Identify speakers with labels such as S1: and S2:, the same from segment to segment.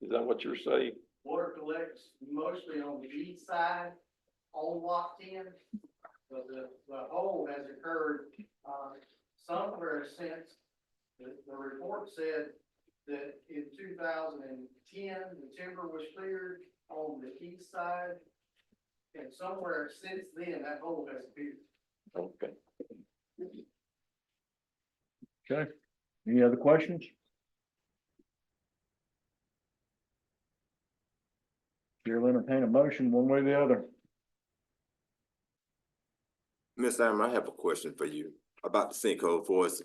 S1: Is that what you're saying?
S2: Water collects mostly on the east side on lot ten. But the, the hole has occurred, uh, somewhere since, the, the report said that in two thousand and ten, the timber was cleared on the east side. And somewhere since then, that hole has appeared.
S1: Okay.
S3: Okay, any other questions? Chair will entertain a motion one way or the other.
S4: Ms. Allen, I have a question for you about the sinkhole for its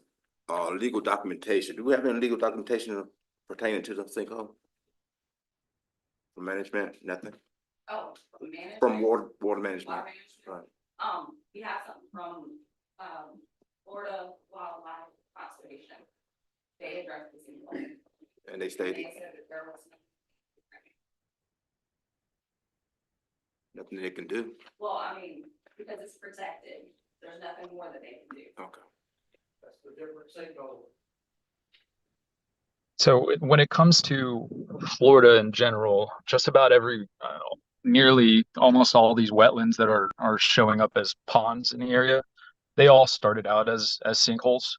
S4: uh legal documentation. Do we have any legal documentation pertaining to the sinkhole? From management, nothing,
S5: Oh, from management.
S4: from water, water
S5: Water
S4: management,
S5: management. Um, we have something from, um, Florida Wildlife Conservation. They addressed this in. They
S4: and they stated
S5: said that there was. no-
S4: nothing they can do,
S5: Well, I mean, because it's protected, there's nothing more that they can do.
S4: okay.
S2: That's the different sinkhole.
S6: So it- when it comes to Florida in general, just about every, uh, nearly almost all these wetlands that are are showing up as ponds in the area, they all started out as as sinkholes.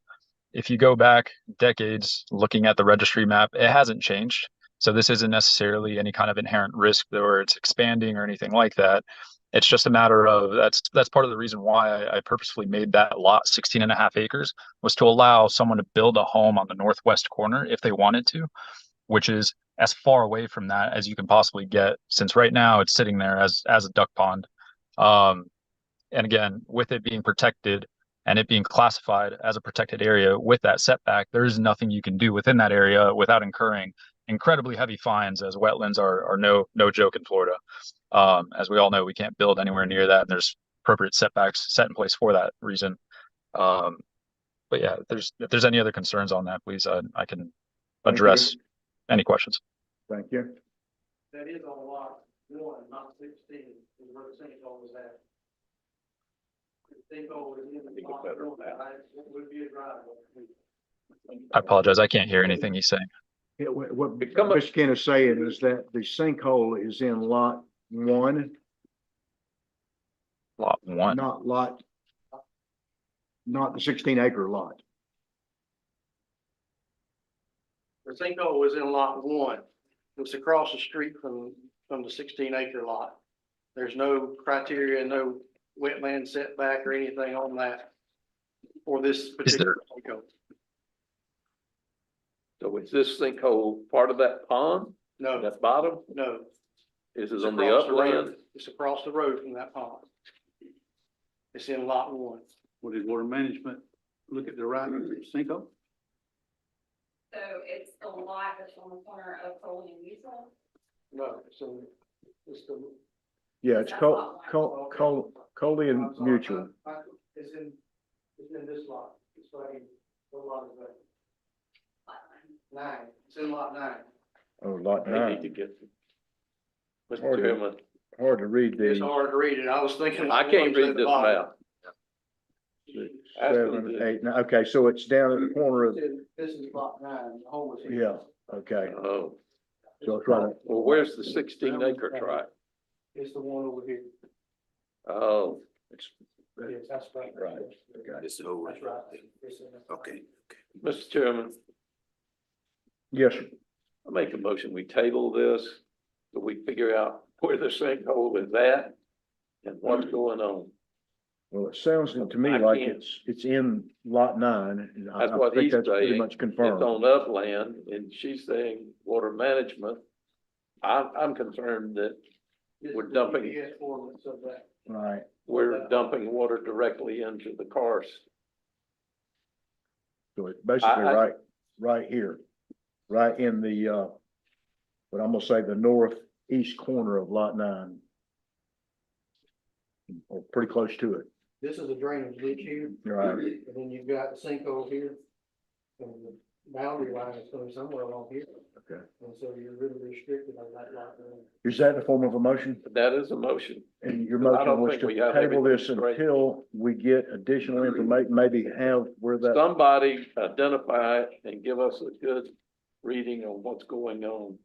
S6: If you go back decades looking at the registry map, it hasn't changed. So this isn't necessarily any kind of inherent risk or it's expanding or anything like that. It's just a matter of that's that's part of the reason why I, I purposefully made that lot 16 and a half acres was to allow someone to build a home on the northwest corner if they wanted to, which is as far away from that as you can possibly get, since right now it's sitting there as as a duck pond. Um, and again, with it being protected and it being classified as a protected area with that setback, there is nothing you can do within that area without incurring incredibly heavy fines as wetlands are are no no joke in Florida. Um, as we all know, we can't build anywhere near that and there's appropriate setbacks set in place for that reason. Um, but yeah, if there's, if there's any other concerns on that, please, uh, I can
S3: Thank you.
S6: address any questions.
S3: Thank you.
S2: That is on lot one, not sixteen, is where the sinkhole is at. The sinkhole is
S1: I
S2: in
S1: think
S2: the
S1: it's
S2: lot
S1: better
S2: one,
S1: now.
S2: I, it would be a driveway.
S6: I apologize. I can't hear anything he's saying.
S3: Yeah, wha- what
S1: Become a-
S3: Mr. Ken is saying is that the sinkhole is in lot one,
S6: Lot one.
S3: not lot, not the sixteen acre lot.
S2: The sinkhole is in lot one. It's across the street from, from the sixteen acre lot. There's no criteria, no wetland setback or anything on that for this particular sinkhole.
S1: So is this sinkhole part of that pond,
S2: No,
S1: that bottom?
S2: no.
S1: Is
S2: It's
S1: it on the
S2: across road.
S1: upland?
S2: It's across the road from that pond. It's in lot one.
S7: What did water management look at the right sinkhole?
S5: So it's the lot that's on the corner of Foley and Weasel.
S2: No, so it's the.
S3: Yeah, it's Col, Col, Col, Coley and
S2: I'm sorry,
S3: Mutual.
S2: I- I- It's in, it's in this lot, it's like, what lot is that?
S5: lot line.
S2: Nine, it's in lot nine.
S3: Oh, lot
S1: They need to
S3: nine.
S1: get. Mr.
S3: Order.
S1: Chairman,
S3: Hard to read
S2: It's
S3: the
S2: hard to read it, I was thinking.
S1: I can't read this map. Ask them
S3: seven,
S1: to-
S3: eight, nine. Okay, so it's down at the corner of,
S2: This is lot nine, the home is. here.
S3: yeah, okay.
S1: Oh,
S3: So it's right,
S1: well, where's the sixteen acre tract?
S2: It's the one over here,
S1: Oh,
S2: yes, that's right.
S3: Right.
S4: This is over.
S2: That's right. It's in this lot.
S4: Okay,
S1: Mr. Chairman,
S3: yes, sir.
S1: I make a motion, we table this, so we figure out where the sinkhole is at and what's going on.
S3: Well, it sounds to
S1: I
S3: me like
S1: can't-
S3: it's, it's in lot nine. and I-
S1: That's
S3: I
S1: what
S3: think
S1: he's
S3: that's Pretty
S1: saying.
S3: much
S1: It's
S3: confirmed.
S1: on upland and she's saying water management. I'm, I'm concerned that
S2: This
S1: We're
S2: is the
S1: dumping.
S2: GPS coordinates of that.
S3: Right.
S1: we're dumping water directly into the cars.
S3: So it's basically
S1: I-
S3: right, right here, right in the, uh, what I'm gonna say, the northeast corner of lot nine. Or pretty close to it.
S2: This is a drainage ditch here.
S3: Right.
S2: And then you've got the sinkhole here. And the boundary line is going somewhere along here.
S3: Okay.
S2: And so you're really restricted on that lot. there.
S3: Is that the form of a motion?
S1: That is a motion.
S3: And your
S1: No, I don't
S3: motion was
S1: think we
S3: to
S1: have
S3: table this
S1: everything straight.
S3: until we get additional information, maybe have where that,
S1: Somebody identify and give us a good reading on what's going on